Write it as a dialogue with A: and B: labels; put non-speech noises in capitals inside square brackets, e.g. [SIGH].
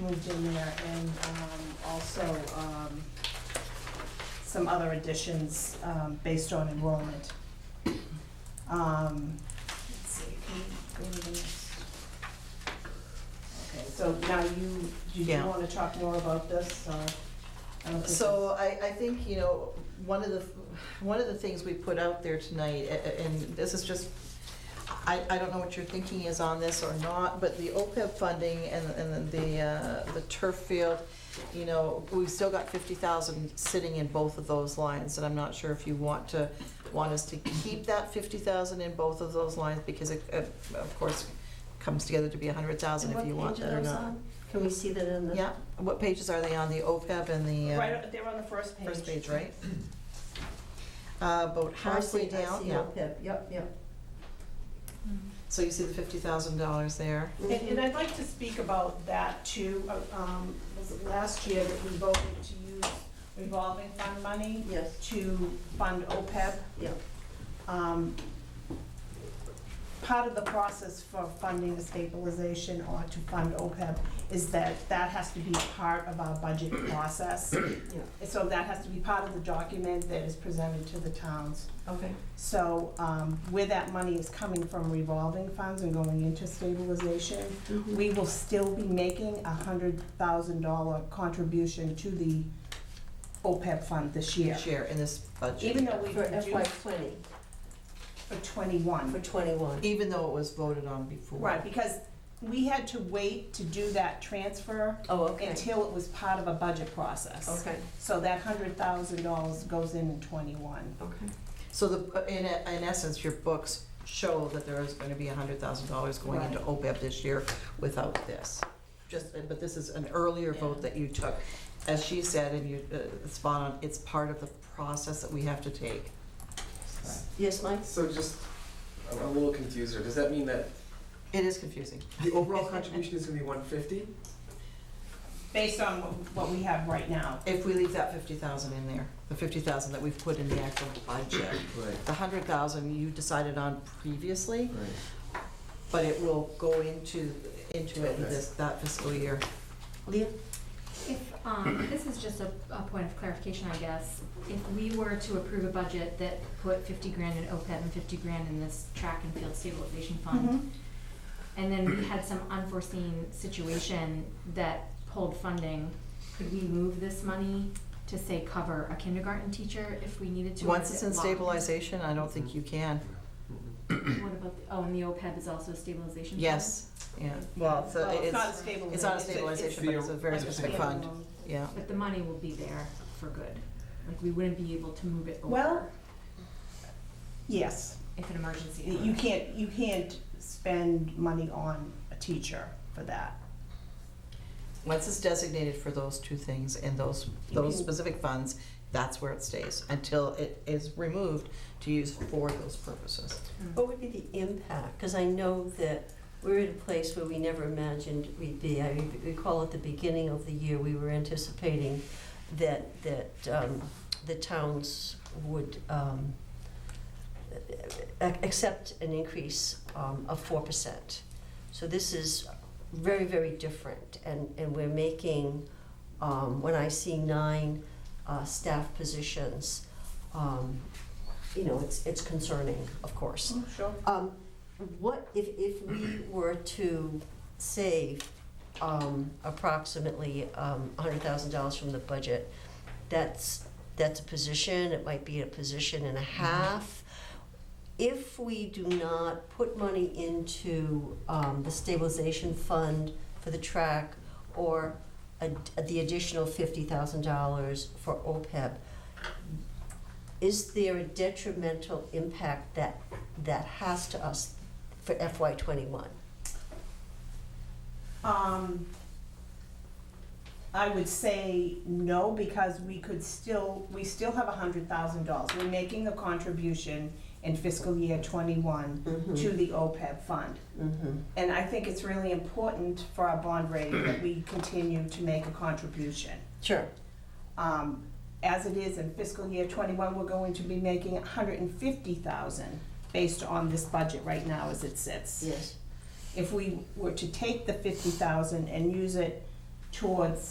A: moved in there, and um, also um, some other additions um, based on enrollment. Um, Let's see, can we go to the next? Okay, so now you, do you
B: Yeah.
A: want to talk more about this? or- I don't think
B: So I, I think, you know, one of the, one of the things we put out there tonight, a- a- and this is just, I, I don't know what your thinking is on this or not, but the OPEB funding and, and the, uh, the turf field, you know, we've still got fifty thousand sitting in both of those lines, and I'm not sure if you want to, want us to keep that fifty thousand in both of those lines, because it, uh, of course, comes together to be a hundred thousand if you want that or not.
C: Can we see that in the,
B: Yeah, what pages are they on, the OPEB and the? uh,
A: Right, they're on the first page.
B: First page, right? [CLEARS THROAT] Uh, About
C: Oh, I see,
B: halfway
C: I
B: down,
C: see,
B: yeah.
C: okay, yep, yep.
B: So you see the fifty thousand dollars there.
A: And and I'd like to speak about that too. Uh, um, Was it last year that we voted to use revolving fund money
C: Yes,
A: to fund OPEB?
C: yeah.
A: Um, Part of the process for funding the stabilization or to fund OPEB is that that has to be part of our budget process. And So that has to be part of the document that is presented to the towns.
C: Okay.
A: So um, where that money is coming from revolving funds and going into stabilization,
C: Mhm.
A: we will still be making a hundred thousand dollar contribution to the OPEB fund this year.
B: Share in this
A: Even
B: budget,
A: though we
C: For FY
A: reduced
C: twenty,
A: for
C: for
A: twenty-one.
C: twenty-one.
B: even though it was voted on before.
A: Right, because we had to wait to do that transfer
C: Oh, okay,
A: until it was part of a budget process.
C: okay,
A: So that hundred thousand dollars goes in in twenty-one.
C: okay.
B: So the, uh, in, in essence, your books show that there is gonna be a hundred thousand dollars going into OPEB this year without this. Just, but this is an earlier vote that you took. As she said, and you, uh, spot on, it's part of the process that we have to take.
C: Yes, Mike?
D: So just, I'm a little confused here. Does that mean that
B: It is confusing.
D: the overall contribution is gonna be one fifty?
A: Based on what- what we have right now.
B: If we leave that fifty thousand in there, the fifty thousand that we've put in the actual budget,
D: Right.
B: the hundred thousand you decided on previously,
D: Right.
B: but it will go into, into it in
D: Okay.
B: this, that fiscal year.
C: Leah?
E: If, um, this is just a, a point of clarification, I guess. If we were to approve a budget that put fifty grand in OPEB and fifty grand in this track and field stabilization fund, and then we had some unforeseen situation that pulled funding, could we move this money to say cover a kindergarten teacher if we needed to? or
B: Once
E: is
B: it's
E: it
B: in
E: locked?
B: stabilization, I don't think you can.
D: Mm-hmm.
E: What about, the- oh, and the OPEB is also a stabilization fund?
B: Yes, yeah. Well, so
A: Well, it's
B: it's,
A: not a stabilization.
B: it's not a
A: it's-
B: stabilization, but it's a very
A: it's-
B: specific fund, yeah.
E: But the money will be there for good. Like, we wouldn't be able to move it
A: Well-
E: over
A: Yes.
E: if an emergency.
A: You can't, you can't spend money on a teacher for that.
B: Once it's designated for those two things and those, those
A: Mhm.
B: specific funds, that's where it stays until it is removed to use for those purposes.
C: What would be the impact? Because I know that we're at a place where we never imagined we'd be. I re- recall at the beginning of the year, we were anticipating that, that um, the towns would um, a- accept an increase um, of 4%. So this is very, very different. And, and we're making, um, when I see nine uh, staff positions, um, you know, it's, it's concerning, of course.
A: Sure.
C: Um, what, if, if we were to save, um, approximately, um, hundred thousand dollars from the budget, that's, that's a position, it might be a position and a half. If we do not put money into, um, the stabilization fund for the track or a, the additional fifty thousand dollars for OPEB, is there a detrimental impact that that has to us for FY twenty-one.
A: Um, I would say no, because we could still, we still have a hundred thousand dollars. We're making a contribution in fiscal year twenty-one
B: Hmm.
A: to the OPEB fund. And I think it's really important for our bond rating that we continue to make a contribution.
C: Sure.
A: Um, As it is in fiscal year twenty-one, we're going to be making a hundred and fifty thousand based on this budget right now as it sits.
C: Yes.
A: If we were to take the fifty thousand and use it towards